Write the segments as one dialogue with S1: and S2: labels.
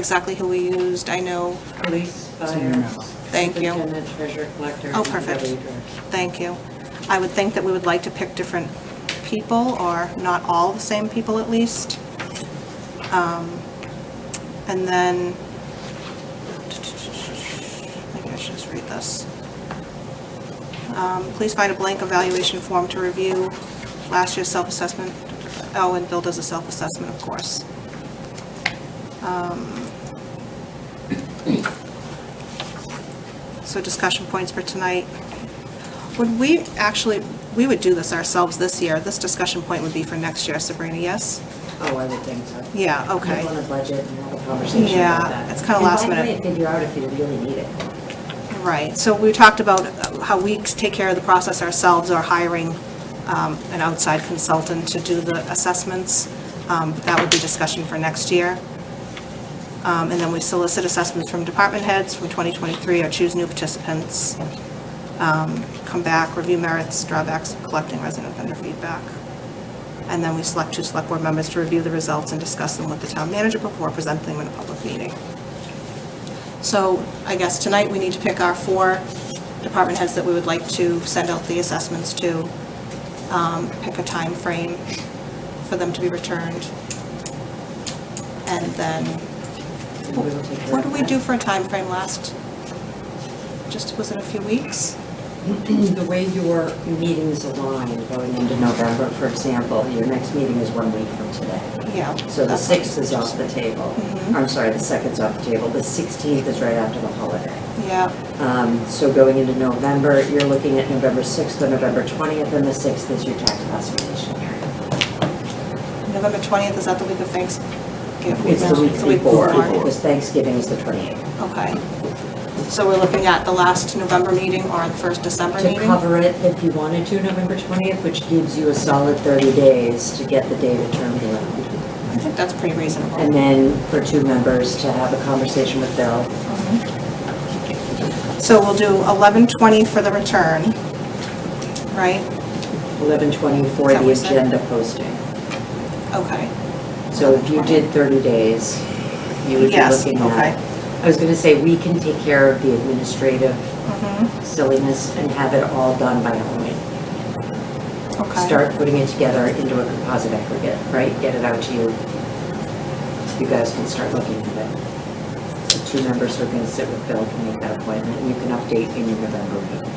S1: exactly who we used. I know,
S2: Police, fire.
S1: Thank you.
S2: Superintendent, treasurer, collector.
S1: Oh,
S2: and
S1: perfect.
S2: deputy director.
S1: thank you. I would think that we would like to pick different people, or not all the same people at least. Um, And then, maybe I should just read this. Um, Please find a blank evaluation form to review last year's self-assessment. Oh, and Bill does a self-assessment, of course. Um, So discussion points for tonight. Would we actually, we would do this ourselves this year. This discussion point would be for next year, Sabrina, yes?
S2: Oh, I would think so.
S1: Yeah, okay.
S2: Put on the budget and have a conversation about
S1: Yeah,
S2: that.
S1: it's kinda last
S2: And by the way,
S1: minute.
S2: figure out if you really need it.
S1: Right, so we talked about how we take care of the process ourselves or hiring um, an outside consultant to do the assessments. Um, but That would be discussion for next year. Um, And then we solicit assessments from department heads from 2023 or choose new participants. Um, Come back, review merits, drawbacks, collecting resident vendor feedback. And then we select two select board members to review the results and discuss them with the town manager before presenting them in a public meeting. So I guess tonight we need to pick our four department heads that we would like to send out the assessments to, um, pick a time frame for them to be returned. And then,
S2: And we will take care
S1: what
S2: of
S1: did we
S2: that.
S1: do for a time frame last? Just, was it a few weeks?
S2: The way your meetings align going into November, for example, your next meeting is one week from today.
S1: Yeah.
S2: So the
S1: that's-
S2: 6th is off the table.
S1: Mhm.
S2: I'm sorry, the 2nd's off the table. The 16th is right after the holiday.
S1: Yeah,
S2: Um, So going into November, you're looking at November 6th or November 20th, and the 6th is your tax classification hearing.
S1: November 20th, is that the week of Thanksgiving?
S2: It's the
S1: No,
S2: week before, because Thanksgiving is the 28th.
S1: Okay. So we're looking at the last November meeting or the first December
S2: To
S1: meeting?
S2: cover it, if you wanted to, November 20th, which gives you a solid 30 days to get the data turned around.
S1: I think that's pretty reasonable.
S2: And then for two members to have a conversation with Bill.
S1: So we'll do 11:20 for the return, right?
S2: 11:20 for
S1: Is that
S2: the
S1: what you said?
S2: agenda posting.
S1: Okay.
S2: So if you did 30 days, you would be
S1: Yes,
S2: looking
S1: okay.
S2: at. I was going to say, we can take care of the administrative
S1: Mhm,
S2: silliness and have it all done by Halloween.
S1: Okay.
S2: Start putting it together into a composite aggregate, right? Get it out to you. You guys can start looking at it. The two members who are going to sit with Bill can make that appointment, and you can update in your November meeting.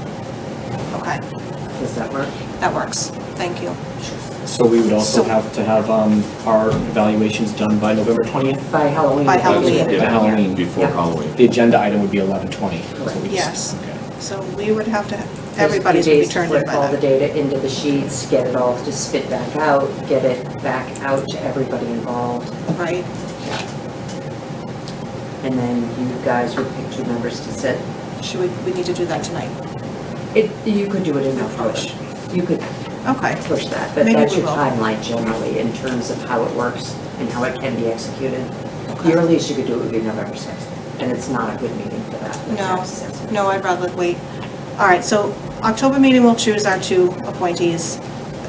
S1: Okay,
S2: Does that work?
S1: that works. Thank you.
S3: So we would also
S1: So-
S3: have to have um, our evaluations done by November 20th?
S2: By Halloween.
S1: By
S2: you can get it
S3: By
S2: done.
S3: Halloween.
S4: Before
S2: Yeah.
S4: Halloween.
S3: The agenda item would be 11:20. is what we just-
S1: Yes.
S3: okay.
S1: So we would have to,
S2: There's a few
S1: everybody's would be
S2: days to
S1: turned in
S2: flip
S1: by
S2: all the
S1: then.
S2: data into the sheets, get it all to spit back out, get it back out to everybody involved.
S1: Right,
S2: And then you guys would pick two members to sit
S1: should we, we need to do that tonight?
S2: It, you could do it in November. You could
S1: Okay,
S2: push that, but
S1: Maybe
S2: that's
S1: we
S2: your
S1: will.
S2: timeline generally in terms of how it works and how it can be executed.
S1: Okay.
S2: The earliest you could do it would be November 6th, and it's not a good meeting for that. the
S1: No,
S2: tax assessment.
S1: no, I'd rather wait. All right, so October meeting, we'll choose our two appointees.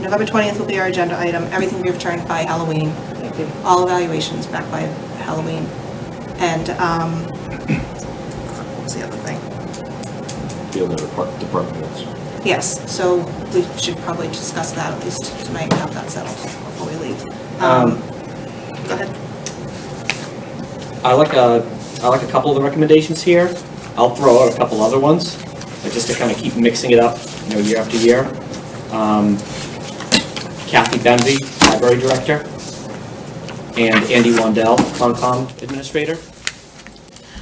S1: November 20th will be our agenda item, everything will be returned by Halloween.
S2: Thank you.
S1: all evaluations back by Halloween. And, um, what was the other thing?
S4: The other depart- departments.
S1: Yes, so we should probably discuss that at least tonight, and have that settled before we leave. Um,
S3: Um,
S1: Go ahead.
S3: I like a, I like a couple of the recommendations here. I'll throw out a couple other ones, but just to kind of keep mixing it up, you know, year after year. Um, Kathy Benvey, Library Director, and Andy Wandell, Concom Administrator,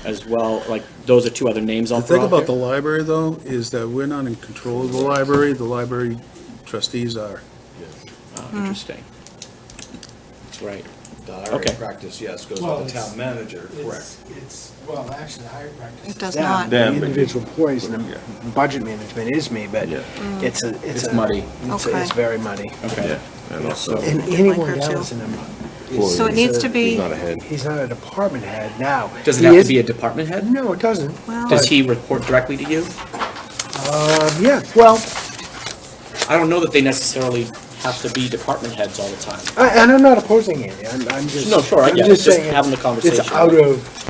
S3: as well, like, those are two other names I'll
S5: The
S3: throw
S5: thing
S3: out
S5: about the
S3: there.
S5: library, though, is that we're not in control of the library, the library trustees are.
S3: Oh,
S1: Hmm.
S3: Interesting. Right.
S6: The hiring
S3: Okay.
S6: practice, yes, goes
S7: Well,
S6: with the
S7: it's-
S6: town manager, correct.
S7: It's, it's, well, actually, the hiring practice.
S1: It does
S7: is-
S1: not.
S4: Them,
S8: The
S4: but-
S8: individual employees and the budget management is me, but
S4: Yeah.
S8: it's a, it's
S3: It's
S8: a.
S3: muddy.
S8: It's,
S1: Mm. Okay.
S8: it's very muddy.
S3: Okay.
S4: And also,
S8: And
S1: Like her
S8: anyone
S1: too.
S8: else in them.
S4: Well, So it
S1: needs to be-
S4: he's not ahead.
S8: He's not a department head now.
S3: Does it
S8: He
S3: have to
S8: is- Uh,
S3: be a department head?
S8: No, it doesn't.
S1: Well-
S3: Does he report directly to you?
S8: Um, yeah, well,
S3: I don't know that they necessarily have to be department heads all the time.
S8: I, and I'm not opposing it. I'm, I'm just.
S3: No, sure, I
S8: I'm
S3: get it. Just
S8: saying
S3: having the
S8: it's-
S3: conversation.
S8: It's out of